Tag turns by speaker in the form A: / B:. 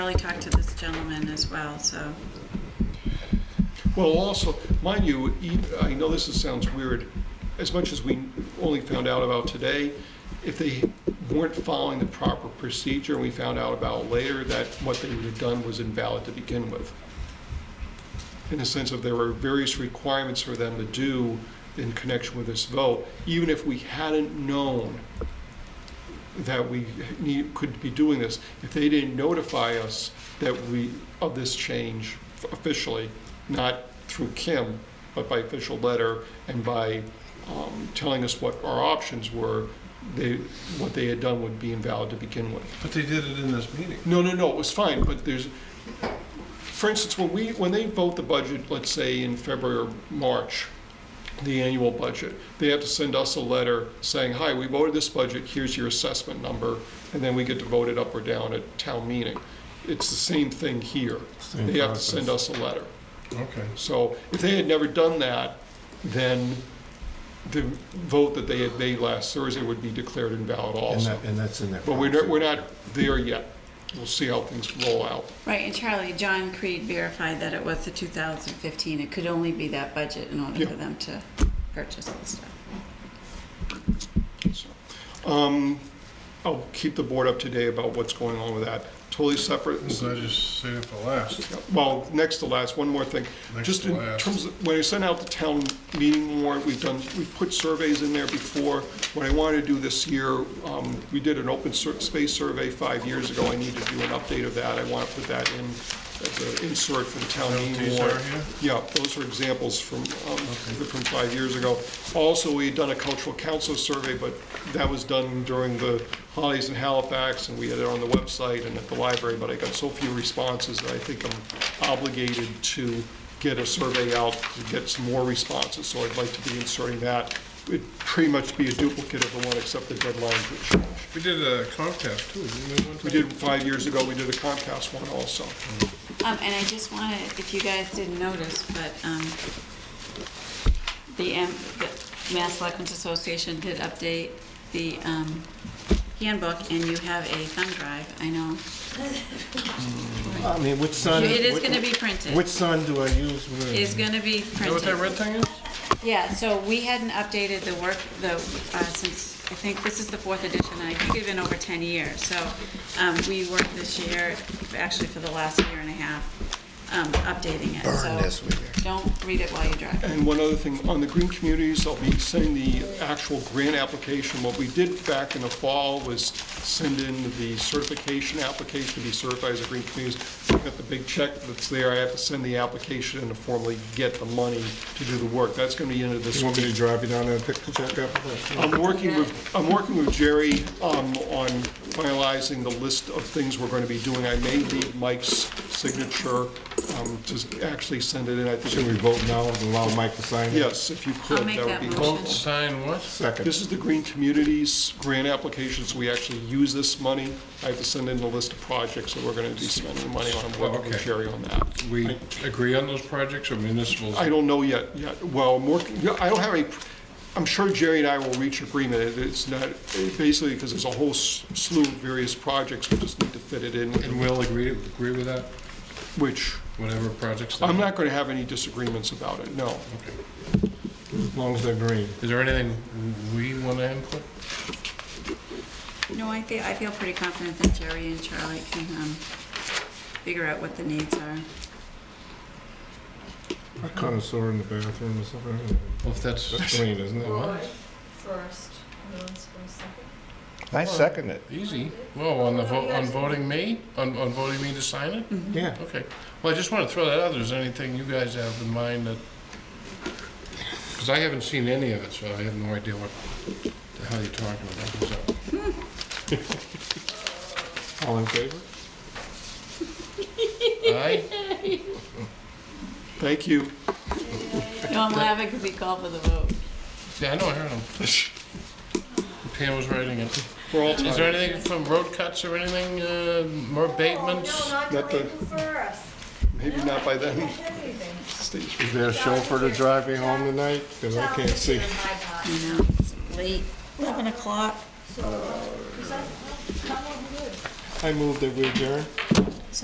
A: really talk to this gentleman as well, so.
B: Well, also, mind you, e- I know this is- sounds weird, as much as we only found out about today, if they weren't following the proper procedure, and we found out about later that what they would have done was invalid to begin with. In the sense of there were various requirements for them to do in connection with this vote, even if we hadn't known that we need, could be doing this, if they didn't notify us that we, of this change officially, not through Kim, but by official letter and by um, telling us what our options were, they, what they had done would be invalid to begin with.
C: But they did it in this meeting.
B: No, no, no, it was fine, but there's, for instance, when we, when they vote the budget, let's say in February or March, the annual budget, they have to send us a letter saying, hi, we voted this budget, here's your assessment number, and then we get to vote it up or down at town meeting. It's the same thing here.
C: Same
B: They have to
C: process.
B: send us a letter.
C: Okay.
B: So if they had never done that, then the vote that they had made last Thursday would be declared invalid
C: And
B: also.
C: that, and that's in that.
B: But we're not,
C: policy.
B: we're not there yet. We'll see how things roll out.
A: Right, and Charlie, John Creed verified that it was the 2015. It could only be that budget in order
B: Yeah.
A: for them to purchase the stuff.
B: So, um, I'll keep the board up to date about what's going on with that. Totally separate.
C: So I just saved it for last.
B: Well, next to last, one more thing.
C: Next
B: Just
C: to
B: in
C: last.
B: terms of, when I sent out the town meeting warrant, we've done, we've put surveys in there before. What I wanted to do this year, um, we did an open sur- space survey five years ago. I need to do an update of that. I want to put that in as an insert for the town meeting
C: These
B: warrant.
C: are here?
B: Yeah, those are examples from, um, from five years ago. Also, we had done a cultural council survey, but that was done during the holidays in Halifax, and we had it on the website and at the library, but I got so few responses that I think I'm obligated to get a survey out to get some more responses, so I'd like to be inserting that. It'd pretty much be a duplicate of the one, except the deadlines would change.
C: We did a Comcast too, didn't we? one
B: We
C: time?
B: did, five years ago, we did a Comcast one also.
A: Um, and I just wanted, if you guys didn't notice, but, um, the, M- the Mass Selectmen's Association did update the, um, handbook, and you have a thumb drive, I know.
D: I mean, which sign?
A: It is
D: which-
A: gonna be printed.
D: Uh, Which sign do I use? Where-
A: It's gonna be
C: You know what that
A: printed.
C: red thing is?
A: Yeah, so we hadn't updated the work, the, uh, since, I think this is the fourth edition, and I think it's been over ten years, so, um, we worked this year, actually for the last year and a half, um, updating it, so.
D: Burn this with you.
A: Don't read it while you drive.
B: And one other thing, on the green communities, I'll be sending the actual grant application. What we did back in the fall was send in the certification application to be certified as a green community. I've got the big check that's there, I have to send the application and to formally get the money to do the work. That's gonna be into this
D: You want me to
B: week.
D: drive you down there and pick the check up?
B: I'm working with, I'm working with Jerry um, on finalizing the list of things we're gonna be doing. I may need Mike's signature um, to actually send it in, I
D: Should
B: think.
D: we vote now and allow Mike to sign it?
B: Yes, if you could,
A: I'll make
B: that would
A: that
B: be
A: motion.
C: Vote, sign what?
D: Second.
B: This is the Green Communities grant applications, we actually use this money. I have to send in the list of projects that we're gonna be spending money on, I'm working with
C: Okay.
B: Sherry on that.
C: We agree on those projects or municipal?
B: I don't know yet, yet, well, more, I don't have any, I'm sure Jerry and I will reach agreement, It- it's not, basically, because there's a whole s- slew of various projects, we just need to fit it in,
C: And we'll agree, agree with that,
B: which,
C: whatever projects? they-
B: I'm not gonna have any disagreements about it, no.
C: Okay.
D: As long as they're green.
C: Is there anything we want to input?
A: No, I feel, I feel pretty confident that Jerry and Charlie can, um, figure out what the needs are.
D: A connoisseur in the bathroom or something.
C: Well, if that's,
D: That's green, isn't it?
C: What?
E: first, no one's going to second.
D: I second it.
C: easy. Well, on the vote, on voting me, on, on voting me to sign it?
D: Yeah.
C: Okay, well, I just want to throw that out, there's anything you guys have in mind that, because I haven't seen any of it, so I have no idea what the hell you're talking about. So,
D: All in favor?
C: Aye?
B: Thank you.
A: No, I'm laughing because he called for the vote.
C: Yeah, I know, I heard him. Pam was writing it.
B: We're all
C: Is there
B: tired.
C: anything from road cuts or anything, uh, more
E: Oh, No,
C: abatements?
E: not
B: Not the-
E: the Lincoln first.
B: Maybe not by then.
E: Everything.
B: Stay-
D: Is there a chauffeur to drive me home tonight? Because I can't see.
E: Down here in my box.
A: You know, it's late, eleven o'clock.
E: So, uh, 'cause I'm- I'm- I'm not good.
D: I move that we adjourn.